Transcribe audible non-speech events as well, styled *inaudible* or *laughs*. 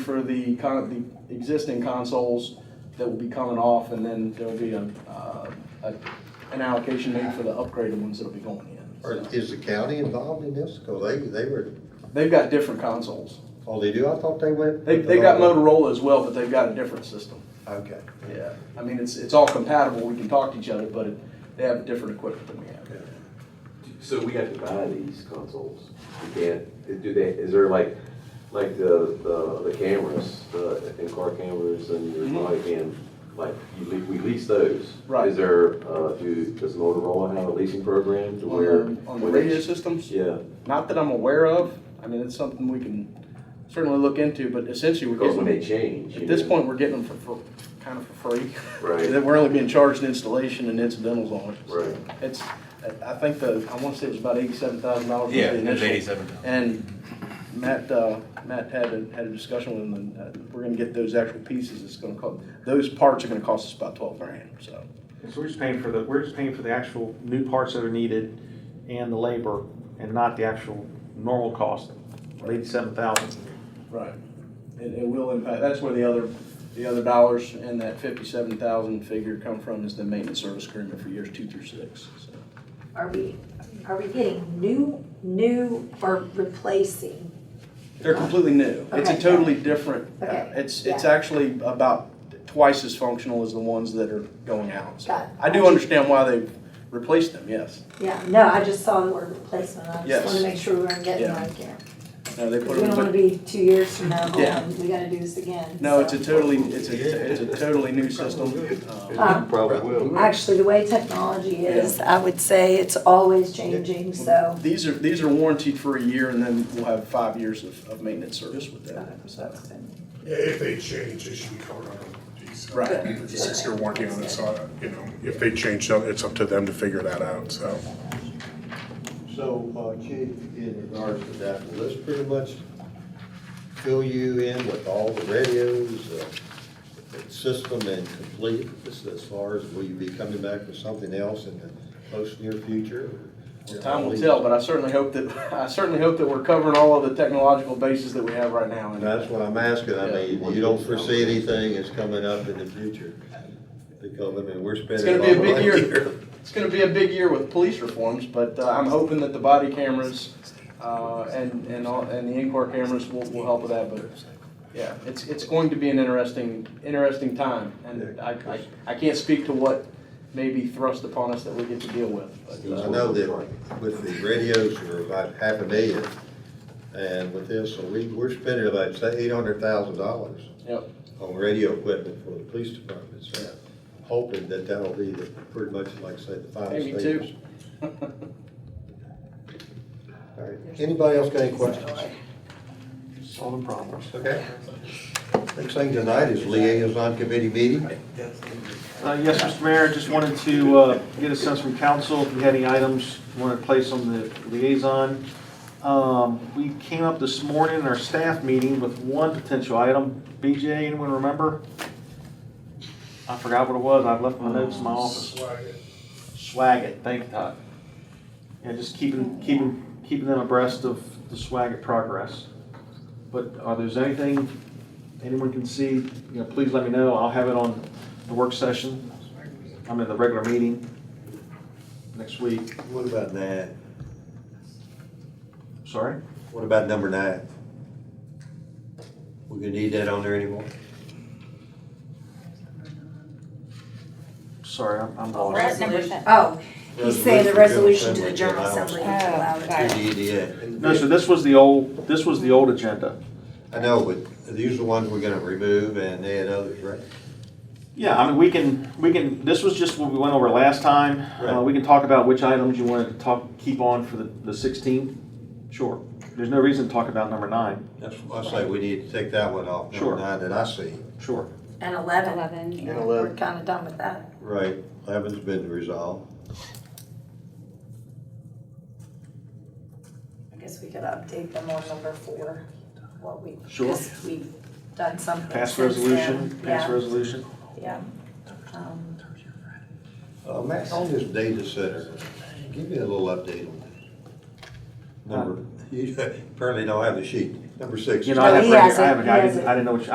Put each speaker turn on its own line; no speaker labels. for the con, the existing consoles that will be coming off, and then there'll be a, uh, a, an allocation made for the upgraded ones that'll be going in.
Or
So,
is the county involved in this? Cause they, they were,
They've got different consoles.
oh, they do, I thought they went.
They, they got Motorola as well, but they've got a different system.
Okay.
Yeah. I mean, it's, it's all compatible, we can talk to each other, but it- they have different equipment than we have.
So we have to buy these consoles. We can't, do they, is there like, like the, the, the cameras, the in-car cameras and your
Mhm.
body cam, like, you le, we lease those.
Right.
Is there, uh, do, does Motorola have a leasing program to where?
On the- On the radio systems,
Yeah,
not that I'm aware of, I mean, it's something we can certainly look into, but essentially we're
because
getting.
when they change. you
At this
know.
point, we're getting them for, for, kind of for free.
Right.
That *laughs* We're only being charged an installation and incidentals on it.
Right.
It's, I- I think the, I wanna say it was about eighty-seven thousand dollars.
Yeah, it was eighty-seven thousand.
And Matt, uh, Matt had a, had a discussion with him, and uh, we're gonna get those actual pieces, it's gonna cost, those parts are gonna cost us about twelve grand, so.
So we're just paying for the, we're just paying for the actual new parts that are needed and the labor and not the actual normal cost, eighty-seven thousand.
Right. It, it will impact, that's where the other, the other dollars and that fifty-seven thousand figure come from is the maintenance service agreement for years two through six, so.
Are we, are we getting new, new or replacing?
They're completely new. It's a
Okay.
totally different, uh,
Okay.
it's, it's
Yeah.
actually about twice as functional as the ones that are going out. So
Got it.
I do understand why they've replaced them, yes.
Yeah, no, I just saw the word replacement, I
Yes.
just wanna make sure we're getting the
Yeah.
right care.
No, they put
Because we don't wanna
them,
be two years from now,
Yeah.
going, we gotta do this again.
no, it's
so.
a totally, it's a, it's a totally new system. Um,
Um,
Probably will.
Actually, the way technology is, I would say it's always changing, so.
These are, these are warranted for a year and then we'll have five years of, of maintenance service with them. so.
Yeah, if they change, it should be covered under these.
Right.
There's a six-year warranty on it, so, I- you know, if they change, so it's up to them to figure that out, so.
So, uh, Chief, in regards to that, will this pretty much fill you in with all the radios, uh, the system and complete? This is as far as, will you be coming back with something else in the close near future?
Well, Time will tell, but I certainly hope that, *laughs* I certainly hope that we're covering all of the technological bases that we have right now. And
That's what I'm asking, I mean, you don't foresee anything that's coming up in the future? Because, I mean, we're
It's
spending.
gonna be a
lot of
big
money
year. It's gonna be a big year with police reforms, but uh, I'm hoping that the body cameras, uh, and, and all, and the in-car cameras will, will help with that, but, yeah, it's, it's going to be an interesting, interesting time, and I, I, I can't speak to what may be thrust upon us that we get to deal with, but,
I
uh,
know that with the radios, we're about half a million, and with this, so we, we're spending about, say, eight hundred thousand dollars
yep.
on radio equipment for the police department, so hoping that that'll be the, pretty much like, say, the final
Maybe
stages.
two.
All right, anybody else got any questions?
Solving problems.
Okay. Next thing tonight is liaison committee meeting.
Uh, Yes, Mr. Mayor, just wanted to uh, get a sense from council if you had any items you want to place on the liaison. Um, We came up this morning in our staff meeting with one potential item. BJ, anyone remember? I forgot what it was. I've left my notes in my office. Swagat, thank you, Todd. Yeah, just keeping, keeping, keeping them abreast of the Swagat progress. But are there's anything anyone can see, you know, please let me know. I'll have it on the work session. I'm in the regular meeting next week.
What about nine?
Sorry?
What about number nine? We gonna need that on there anymore?
Sorry, I'm, I'm
We're at
lost.
number ten.
Oh, he's saying the resolution to the
General
General
Assembly to
Assembly. to
allow it.
allow
To
it.
the E EDA.
No, so this was the old, this was the old agenda.
I know, but these are the ones we're gonna remove and add others, right?
Yeah, I mean, we can, we can, this was just what we went over last time. Uh,
Right.
we can talk about which items you want to talk, keep on for the, the sixteenth. Sure. There's no reason to talk about number nine.
That's why I say we need to take that one off, number
Sure.
nine that I see.
Sure.
And eleven,
Eleven, yeah.
we're kinda done with that.
Right, eleven's been resolved.
I guess we could update them on number four, what we,
Sure.
because we've done something.
Pass
since then.
resolution, pass
Yeah,
resolution.
yeah. Um,
Uh, Matt, on this data center, give me a little update on that. Number, you *laughs* apparently don't have the sheet. Number six.
You know, I
No,
have,
he
right here.
hasn't.
I haven't,
He
I didn't,
hasn't.
I didn't know what you,